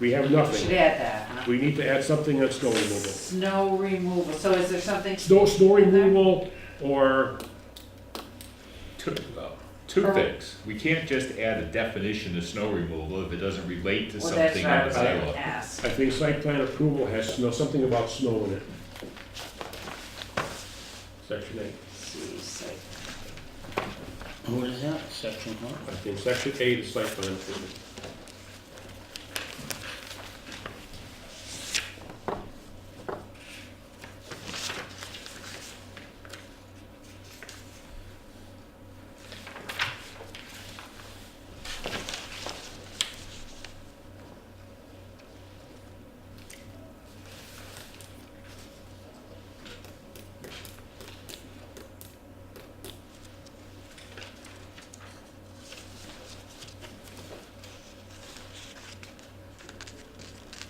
We have We should nothing. add that, huh? We need to add something on snow removal. Snow removal, so is there something? Snow, snow removal or, Two, uh, two Or- things. We can't just add a definition of snow removal if it doesn't relate to Well, that's something what I on the was gonna sidewalk. ask. I think site plan approval has snow, something about snow in it. Section eight. See, so- What is that, section one? I think section eight is site plan approval.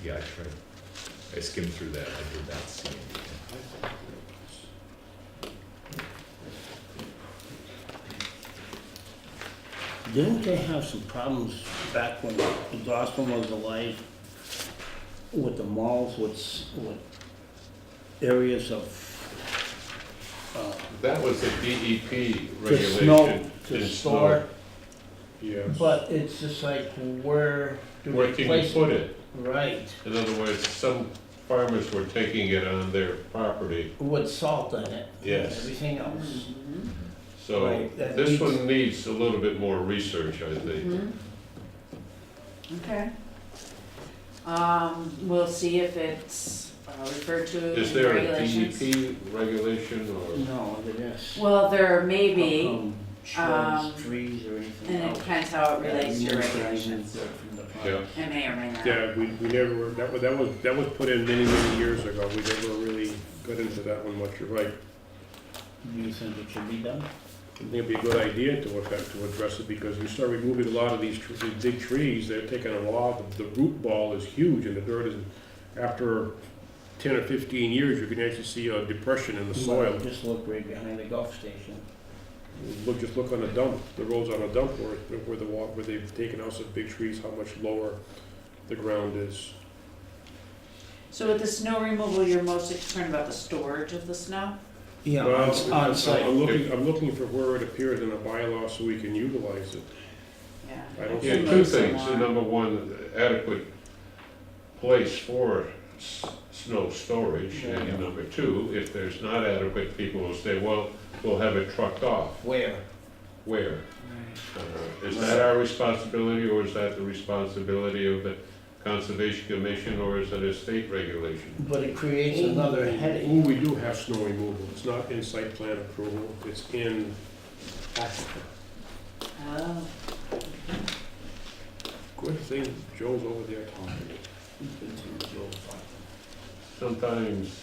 Yeah, I tried. I skimmed through that. I did not see anything. Didn't they have some problems back when Dawson was alive with the malls, with, s- with areas of, uh, That was a DEP to snow, regulation. to It's store? Yes. But it's just like, where do Where we can you place it? put it? Right, In other words, some farmers were taking it on their property. with salt in it. Yes. Everything else. Mhm. So Right, that this needs- one needs a little bit more research, I think. Mhm. Okay. Um, we'll see if it's uh, referred to Is in there a regulations. DEP regulation or? No, there is. Well, there may Oh, How be, come um, Shrubs, trees, or anything and it else. depends how it relates Yeah, to nurseries regulations. and from the park. Yeah, It may or may not. Yeah, we, we never, that was, that was, that was put in many, many years ago. We never really got into that one much, you're right. Do you think it should be done? I think it'd be a good idea to affect, to address it, because you start removing a lot of these, tr- these big trees, they're taking a lot, the the root ball is huge, and the dirt is, after ten or fifteen years, you can actually see a depression in the soil. Just look right behind the golf station. Look, just look on the dump, the roads on a dump where, where the wa, where they've taken out some big trees, how much lower the ground is. So with the snow removal, you're mostly concerned about the storage of the snow? Yeah, Well, on, on site. I'm looking, I'm looking for where it appears in a bylaw so we can utilize it. Yeah. I don't yeah, think- two Move some things. more. Number one, adequate place for s- snow storage. Yeah. And number two, if there's not adequate, people will say, well, we'll have it trucked off. Where? Where? Uh, Is that our responsibility, or is that the responsibility of the Conservation Commission, or is it a state regulation? But it creates another headache. Ooh, we do have snow removal, it's not in site plan approval, it's in Africa. Oh, Good thing Joe's over there talking. Sometimes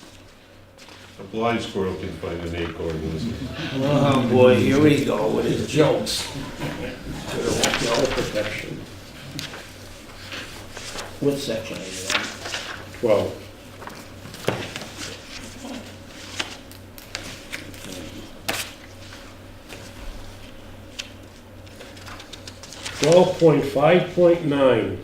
a blind squirrel can find an acorn, listen. Oh, boy, here we go with his jokes. Snow protection. What section are you on? Twelve. Twelve point five point nine.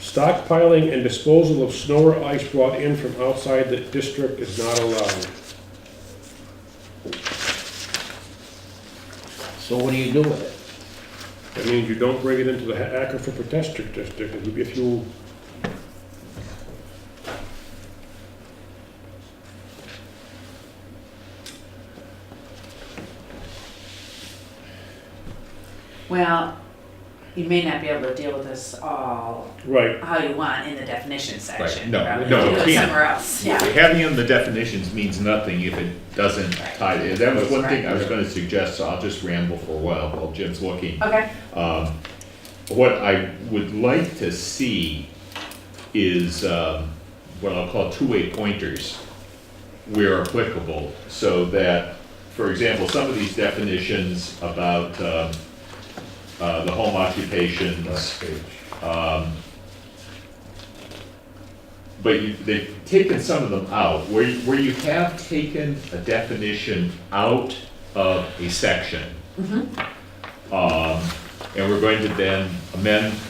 Stockpiling and disposal of snow or ice brought in from outside the district is not allowed. So what do you do with it? That means you don't bring it into the ha- aquifer protector district, if you- if you, Well, you may not be able to deal with this all right, how you want in the definition section. no, Probably no, do we it can't. Somewhere else, yeah. Having in the definitions means nothing if it doesn't tie, that was one thing I was gonna suggest, so I'll just ramble for a while while Jim's looking. Okay, Um, What I would like to see is, um, what I'll call two-way pointers where applicable, so that, for example, some of these definitions about, um, uh, the home occupations, Last page. But you, they've taken some of them out, where, you- where you have taken a definition out of a section. Um, and we're going to then amend